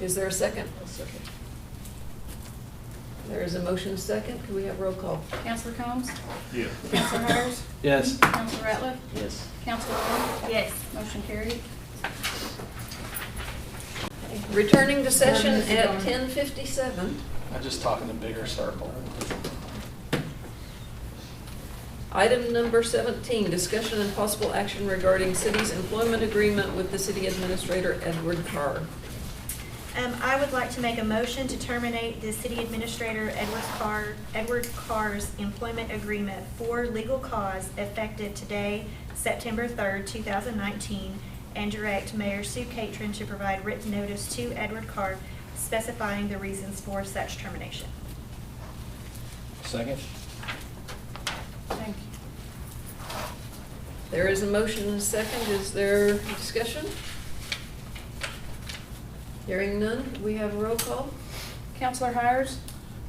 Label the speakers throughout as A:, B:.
A: Is there a second? There is a motion second. Can we have roll call?
B: Counselor Combs?
C: Yes.
B: Counselor Hires?
D: Yes.
B: Counselor Ratliff?
A: Yes.
B: Counselor Long?
E: Yes.
B: Motion carried.
A: Returning to session at ten fifty-seven.
D: I just talk in a bigger circle.
A: Item number seventeen, discussion and possible action regarding city's employment agreement with the city administrator Edward Carr.
E: Um, I would like to make a motion to terminate the city administrator Edward Carr, Edward Carr's employment agreement for legal cause effective today, September third, two thousand nineteen, and direct Mayor Sue Catron to provide written notice to Edward Carr specifying the reasons for such termination.
D: Second?
B: Thank you.
A: There is a motion and a second. Is there discussion? Hearing none, we have roll call?
B: Counselor Hires?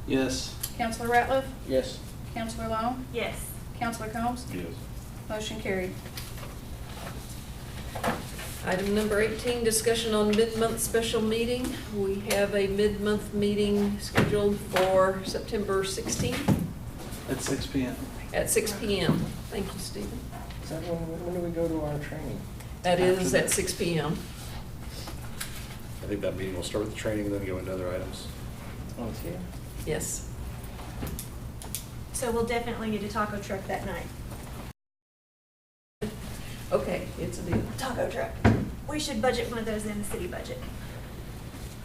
D: Yes.
B: Counselor Ratliff?
D: Yes.
B: Counselor Long?
E: Yes.
B: Counselor Combs?
C: Yes.
B: Motion carried.
A: Item number 18, discussion on mid-month special meeting. We have a mid-month meeting scheduled for September 16th
D: At six P M.
A: at 6 PM. Thank you, Stephen.
F: Is that when, when do we go to our training?
A: That is at 6 PM.
G: I think that meeting will start with the training and then go into other items.
F: Oh, it's here?
A: Yes.
E: So we'll definitely need a taco truck that night.
A: Okay, it's a deal.
E: Taco truck. We should budget one of those in the city budget.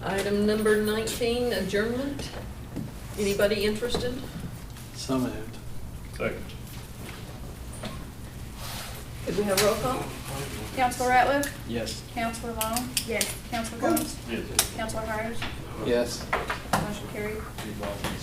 A: Item number 19, adjournment. Anybody interested?
D: So moved.
C: Second.
A: Could we have roll call?
B: Counselor Ratliff?
D: Yes.
B: Counselor Long?
E: Yes.
B: Counselor Combs?
C: Yes.
B: Counselor Hires?
D: Yes.
B: Motion carried.
D: Be welcome.